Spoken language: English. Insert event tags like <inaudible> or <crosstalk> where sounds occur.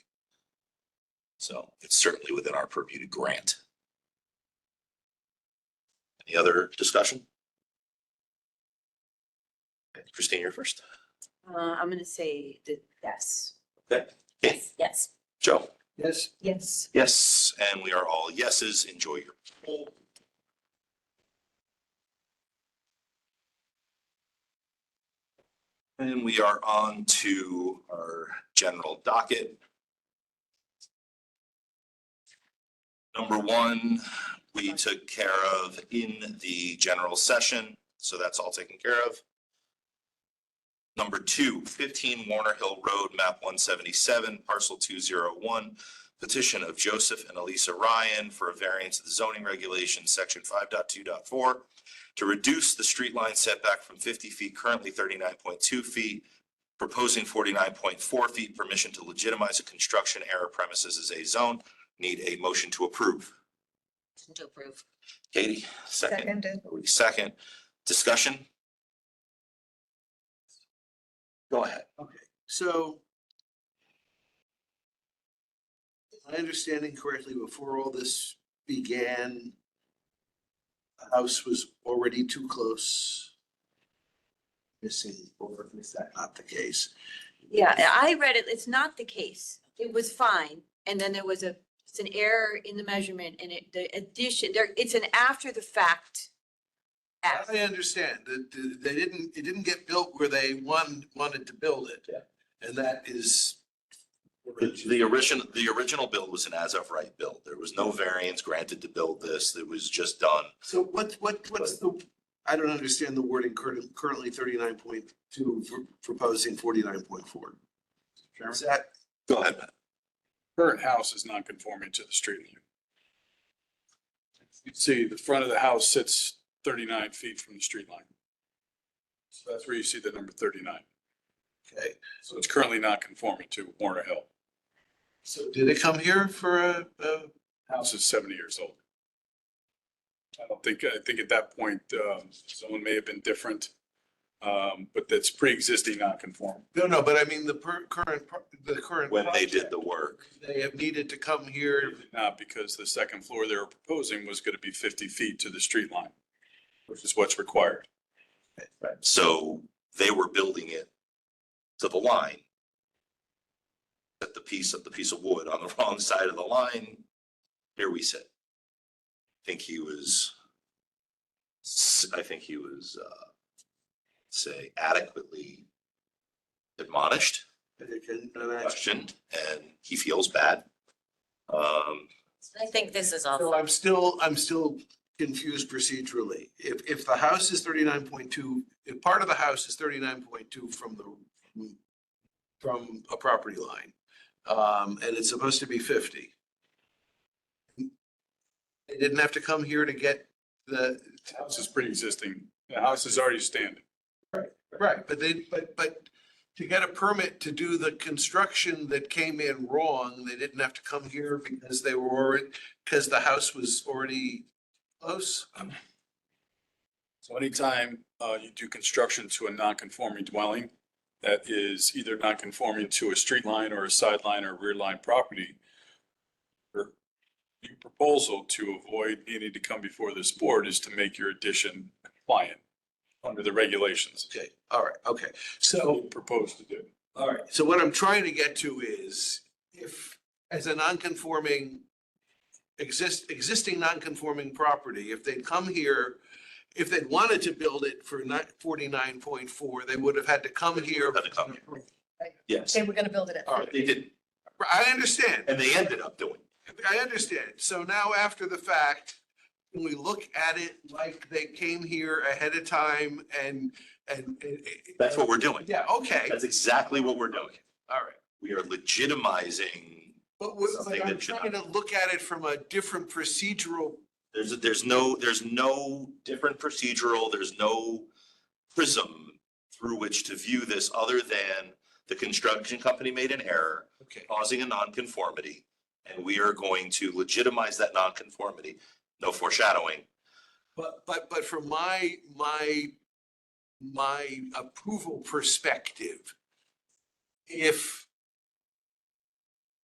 So it's certainly within our purview to grant. Any other discussion? Christine, you're first. Uh, I'm gonna say that yes. Okay. Yes, yes, Joe? Yes. yes. Yes, and we are all yeses. Enjoy your poll. And we are on to our general docket. Number one, we took care of in the general session, so that's all taken care of. Number two, 15 Warner Hill Road, map 177, parcel 201, petition of Joseph and Elisa Ryan for a variance of the zoning regulation, section 5.2.4, to reduce the street line setback from fifty feet, currently thirty-nine point two feet, proposing forty-nine point four feet, permission to legitimize a construction error premises as a zone. Need a motion to approve. Motion To approve. Katie, second. Seconded. Marie, Second. Discussion? Go ahead. So if I understanding correctly, before all this began, the house was already too close. Missing, or is that not the case? Yeah, I read it, it's not the case. It was fine, and then there was a, it's an error in the measurement and it, the addition, there, it's an after the fact. act. I understand that th- they didn't, it didn't get built where they one wanted to build it. Yeah. And that is. The the original, the original build was an as-of-right build. There was no variance granted to build this. It was just done So what, what, what's the, I don't understand the wording currently, currently thirty-nine point two, proposing forty-nine point four. Is that, Go ahead. current house is non conforming to the street line. You can see the front of the house sits thirty-nine feet from the street line. So that's where you see the number thirty-nine. okay, So it's currently not conforming to Warner Hill. so did it come here for a, a, House is seventy years old. I don't think, I think at that point, um, someone may have been different. Um, but that's pre-existing non-conforming. no, no, but I mean, the per, current, pro- the current. when they did project, the work. They have needed to come here, Not because the second floor they were proposing was gonna be fifty feet to the street line, which is what's required. So they were building it to the line. At the piece of the piece of wood on the <laughs> wrong side of the line, here we sit. I Think he was. s- I think he was, uh, say adequately admonished, they can, and I- questioned, and he feels bad. Um, I think this is So all, I'm still, I'm still confused procedurally. If, if the house is thirty-nine point two, if part of the house is thirty-nine point two from the, from a property line, um, and it's supposed to be fifty. They didn't have to come here to get the, The House is pre-existing. The house is already standing. right, but they, but, but to get a permit to do the construction that came in wrong, they didn't have to come here because they were already, because the house was already close. So anytime uh, you do construction to a non-conforming dwelling that is either non-conforming to a street line or a sideline or rear line property, your your proposal to avoid needing to come before this board is to make your addition compliant under the regulations. Okay, all right, okay. What So, you Propose to do. all right, so what I'm trying to get to is if, as a non-conforming, exist, existing non-conforming property, if they'd come here, if they'd wanted to build it for not forty-nine point four, they would have had to come here. Had to come yes, They were gonna build it at All but they did, I understand. and they ended up doing. I understand. So now after the fact, when we look at it like they came here ahead of time and, and. and- That's what we're doing. Yeah, okay, That's exactly what we're doing. all right. we are legitimizing, But we- something but I'm that should trying to look at it from a different procedural, there's, there's no, there's no different procedural, there's no prism through which to view this other than the construction company made an error okay, causing a nonconformity, and we are going to legitimize that nonconformity. No foreshadowing. but, but, but from my, my, my approval perspective, if